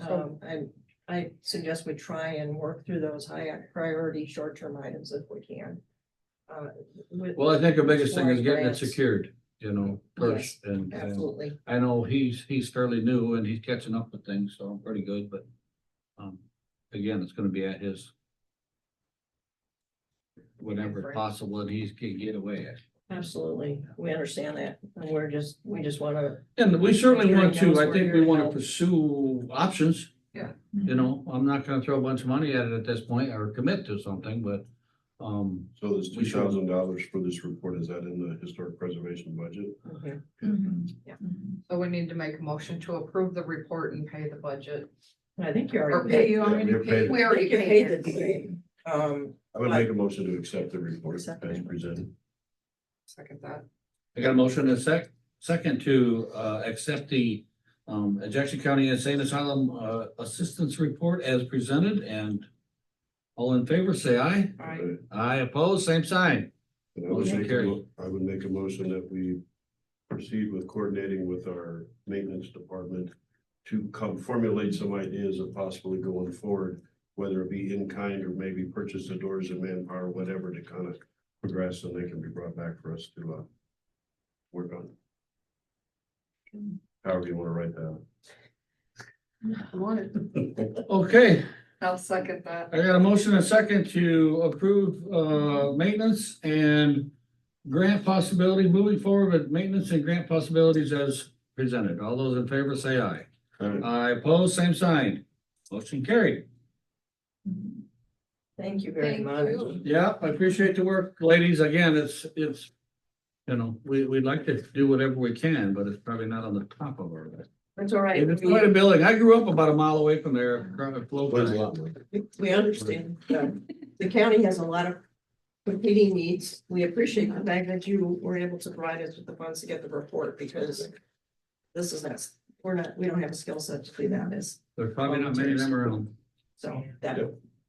I, Um, I suggest we try and work through those high priority short-term items if we can. Uh, with- Well, I think the biggest thing is Exploring getting it grants. secured, you know, first, and, and Absolutely. I know he's, he's fairly new and he's catching up with things, so I'm pretty good, but. Um, again, it's gonna be at his. Whenever Right. possible, and he's can get away. Absolutely, we understand that, and we're just, we just wanna, And we certainly Hearing want to, those I were think we your wanna help. pursue options. Yeah. You know, I'm not gonna throw a bunch of money at it at this point or commit to something, but, um, So this We two should- thousand dollars for this report, is that in the historic preservation budget? okay, Mm-hmm. Mm-hmm. So we need to make a motion to approve the report and pay the budget. I think you Or already. pay, you Yeah, already we paid paid, it. we already You paid paid it. it. Um, I would Right. make a motion to accept the report as Second. presented. Second that. I got a motion and a sec, second to, uh, accept the, um, Jackson County Insane Asylum, uh, Assistance Report as presented and all in favor, say aye. Aye. Okay. Aye opposed, same sign. And I would Motion make, a carried. mo- I would make a motion that we proceed with coordinating with our maintenance department to come formulate some ideas of possibly going forward, whether it be in kind or maybe purchase the doors and manpower, whatever to kind of progress and they can be brought back for us to, uh, work on. However you want to write that. Okay, I'll second that. I got a motion and a second to approve, uh, maintenance and grant possibility, moving forward with maintenance and grant possibilities as presented. All those in favor, say aye. Aye opposed, same sign. Motion carried. thank you very Thank much. you. Yeah, I appreciate the work, ladies. Again, it's, it's, you know, we, we'd like to do whatever we can, but it's probably not on the top of our list. That's all right, And It's We- quite a building. I grew up about a mile away from there, across the flow When's path. lot one? we, we understand, uh, the county has a lot of competing needs, we appreciate the fact that you were able to provide us with the funds to get the report, because this is us, we're not, we don't have a skill set to do that, is, There's probably not many of them around. so that,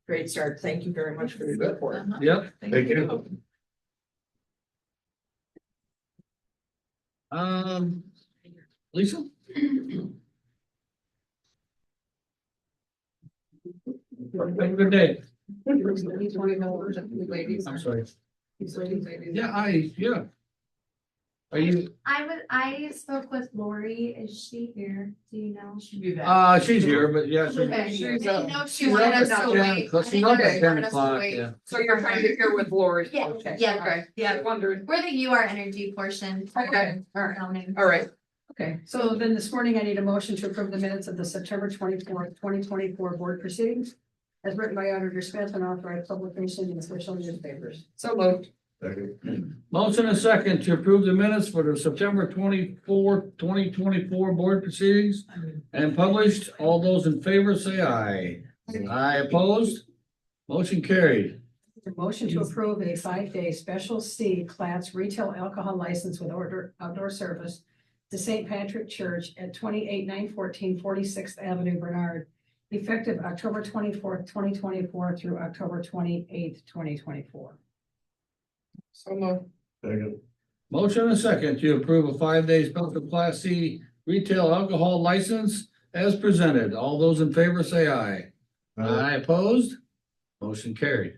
great start, thank you very much for your report. Yep. Thank you. Um, Lisa? Have a good day. These were the numbers of the ladies. I'm sorry. These ladies, ladies. Yeah, I, yeah. Are you, I was, I spoke with Lori. Is she here? Do you know? Should be back. uh, she's here, but yeah, she's. Okay, she's I up. didn't know if she She's wanted up us at to ten. wait. Let's I didn't knock know at if they 10 wanted us to o'clock, wait. yeah. So you're trying to hear with Lori? Yeah, Okay, yeah. Okay, yeah, I'm wondering. We're the UR energy portion. Okay, all right, all right. Okay, so then this morning I need a motion to approve the minutes of the September twenty-fourth, twenty twenty-four board proceedings. As written by Auditor Smith and authorized publication in official newspapers. So moved. Second. Motion and second to approve the minutes for the September twenty-fourth, twenty twenty-four board proceedings and published. All those in favor say aye. Aye opposed? Motion carried. A motion to approve a five-day special C class retail alcohol license with order outdoor service to St. Patrick Church at 28914 nine fourteen Forty-sixth Avenue, Bernard, effective October twenty-fourth, twenty twenty-four through October twenty-eighth, twenty twenty-four. So moved. Second. Motion and second to approve a five-day special class C retail alcohol license as presented. All those in favor say aye. Aye opposed? Motion carried.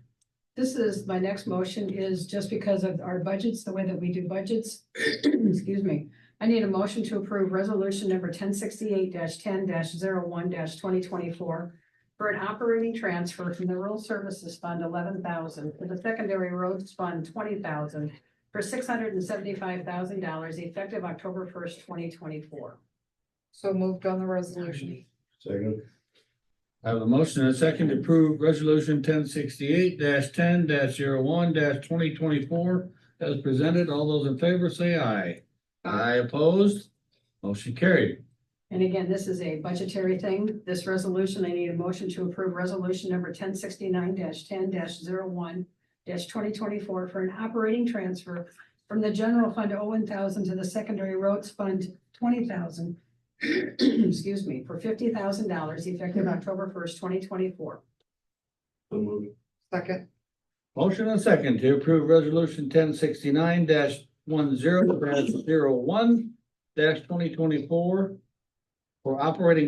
This is, my next motion is just because of our budgets, the way that we do budgets. Excuse me. I need a motion to approve resolution number ten sixty-eight ten one twenty twenty-four for an operating transfer from the Rural Services Fund eleven thousand to the Secondary Roads Fund twenty thousand for six hundred and seventy-five thousand dollars effective October first, twenty twenty-four. So moved on the resolution. Second. I have a motion and a second to approve resolution ten sixty-eight ten one twenty twenty-four as presented. All those in favor say aye. Aye opposed. Motion carried. And again, this is a budgetary thing. This resolution, I need a motion to approve resolution number ten sixty-nine ten one twenty twenty-four for an operating transfer from the general fund one thousand to the secondary roads fund twenty thousand. Excuse me, for fifty thousand dollars effective October first, twenty twenty-four. So moved. Second. Motion and a second to approve resolution ten sixty-nine one zero one twenty twenty-four for operating